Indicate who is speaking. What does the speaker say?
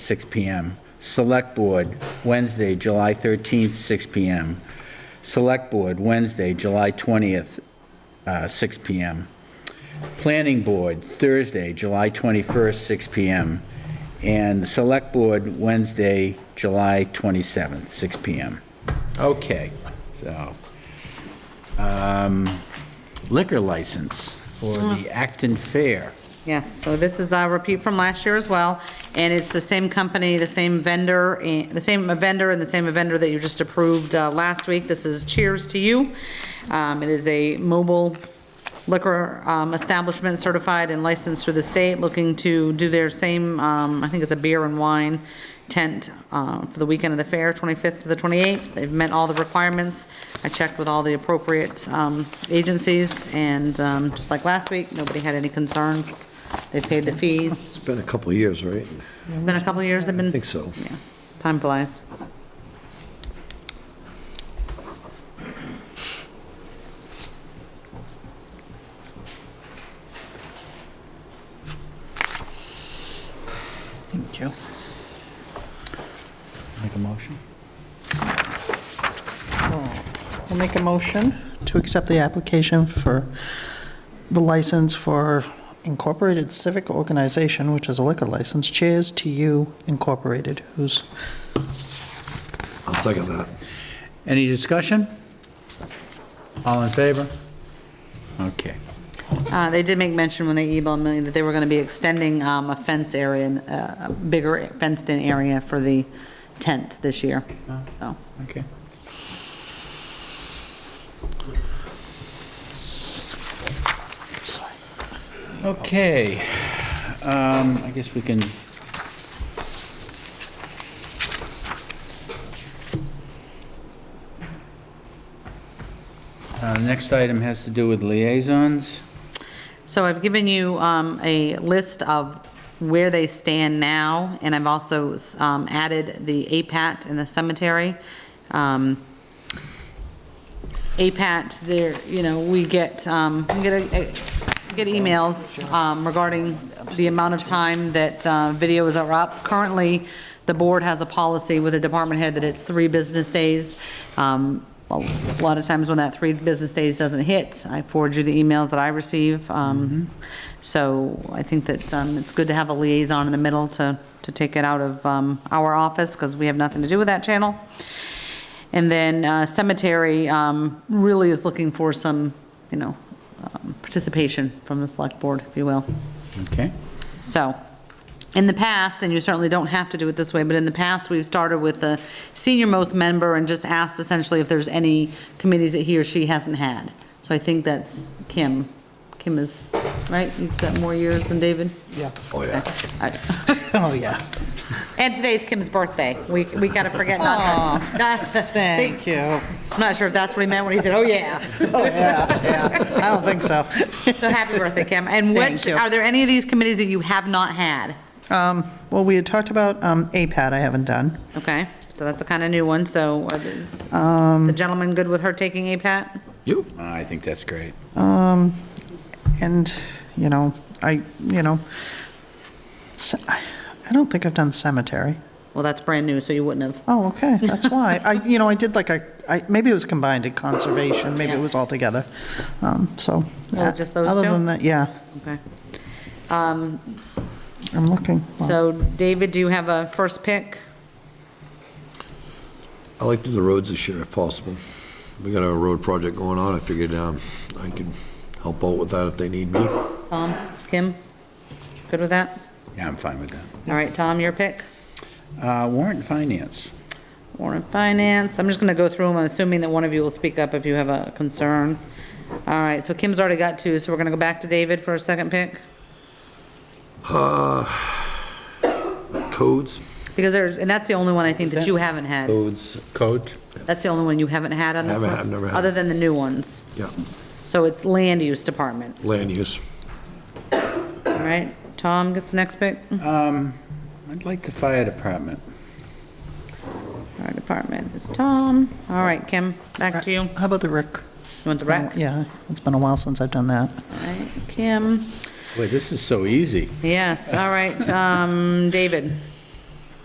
Speaker 1: 6 PM. Select Board, Wednesday, July 13th, 6 PM. Select Board, Wednesday, July 20th, uh, 6 PM. Planning Board, Thursday, July 21st, 6 PM. And the Select Board, Wednesday, July 27th, 6 PM. Okay, so um, liquor license for the Acton Fair.
Speaker 2: Yes, so this is a repeat from last year as well, and it's the same company, the same vendor, eh, the same vendor and the same vendor that you just approved uh, last week. This is Cheers to You. Um, It is a mobile liquor um, establishment certified and licensed through the state, looking to do their same, um, I think it's a beer and wine tent uh, for the weekend of the fair, 25th to the 28th. They've met all the requirements. I checked with all the appropriate um, agencies, and um, just like last week, nobody had any concerns. They've paid the fees.
Speaker 3: It's been a couple of years, right?
Speaker 2: Been a couple of years they've been.
Speaker 3: I think so.
Speaker 2: Yeah, time flies.
Speaker 1: Thank you. Make a motion?
Speaker 4: I'll make a motion to accept the application for the license for Incorporated Civic Organization, which is a liquor license, Cheers to You Incorporated, who's,
Speaker 3: I'll second that.
Speaker 1: Any discussion? All in favor? Okay.
Speaker 2: Uh, They did make mention when they emailed me that they were going to be extending um, a fence area, and, uh, a bigger fenced-in area for the tent this year, so.
Speaker 1: Okay.
Speaker 4: sorry.
Speaker 1: Okay, um, I guess we can. Uh, next item has to do with liaisons.
Speaker 2: So I've given you um, a list of where they stand now, and I've also um, added the APAT and the cemetery. Um, APAT, there, you know, we get, um, we get, a- a- get emails um, regarding the amount of time that uh, videos are up. Currently, the board has a policy with the department head that it's three business days. Um, A lot of times when that three business days doesn't hit, I forward you the emails that I receive. Um, So I think that um, it's good to have a liaison in the middle to, to take it out of um, our office, because we have nothing to do with that channel. And then uh, cemetery um, really is looking for some, you know, um, participation from the select board, if you will.
Speaker 1: Okay,
Speaker 2: So, in the past, and you certainly don't have to do it this way, but in the past, we've started with the senior-most member and just asked essentially if there's any committees that he or she hasn't had. So I think that's Kim. Kim is, right? You've got more years than David?
Speaker 4: Yeah.
Speaker 3: Oh, yeah.
Speaker 2: Okay. All right.
Speaker 4: Oh, yeah.
Speaker 2: And today's Kim's birthday. We, we gotta forget not to, not to.
Speaker 4: Thank you.
Speaker 2: I'm not sure if that's what he meant when he said, oh, yeah.
Speaker 4: Oh, yeah, yeah. I don't think so.
Speaker 2: So happy birthday, Kim. And which,
Speaker 4: Thank you.
Speaker 2: are there any of these committees that you have not had?
Speaker 4: Um, Well, we had talked about um, APAT I haven't done.
Speaker 2: Okay, so that's a kind of new one, so are these- the gentleman good with her taking a pat?
Speaker 3: You?
Speaker 1: I think that's great.
Speaker 4: And, you know, I, you know, ce- I don't think I've done cemetery.
Speaker 2: Well, that's brand new, so you wouldn't have.
Speaker 4: Oh, okay, that's why. I, you know, I did like a, I, maybe it was combined at conservation, maybe it was all together. Um, so.
Speaker 2: Well,
Speaker 4: uh,
Speaker 2: Oh, just those two?
Speaker 4: Other than that, yeah,
Speaker 2: Okay.
Speaker 4: I'm looking. Well,
Speaker 2: So David, do you have a first pick?
Speaker 3: I like to do the roads this year if possible. We got a road project going on. I figured um, I could help out with that if they need me.
Speaker 2: Tom, Kim? Good with that?
Speaker 1: Yeah, I'm fine with that.
Speaker 2: All right, Tom, your pick?
Speaker 1: Uh, warrant and finance.
Speaker 2: Warren Finance. I'm just going to go through them, I'm assuming that one of you will speak up if you have a concern. All right, so Kim's already got two, so we're going to go back to David for a second pick?
Speaker 3: Uh, Codes?
Speaker 2: Because there's, and that's the only one I think that you haven't had.
Speaker 3: Codes.
Speaker 1: Code?
Speaker 2: That's the only one you haven't had on this
Speaker 3: Oh. Haven't
Speaker 2: list?
Speaker 3: had- never had.
Speaker 2: Other than the new ones.
Speaker 3: Yeah,
Speaker 2: So it's land use department,
Speaker 3: land use.
Speaker 2: all right? Tom gets next pick?
Speaker 1: Um, I'd like the fire department.
Speaker 2: Our department is Tom. All right, Kim, back to you. You
Speaker 4: How about the rec?
Speaker 2: want the rec?
Speaker 4: Yeah, it's been a while since I've done that.
Speaker 2: All right, Kim.
Speaker 1: Boy, this is so easy.
Speaker 2: Yes, all right, um, David.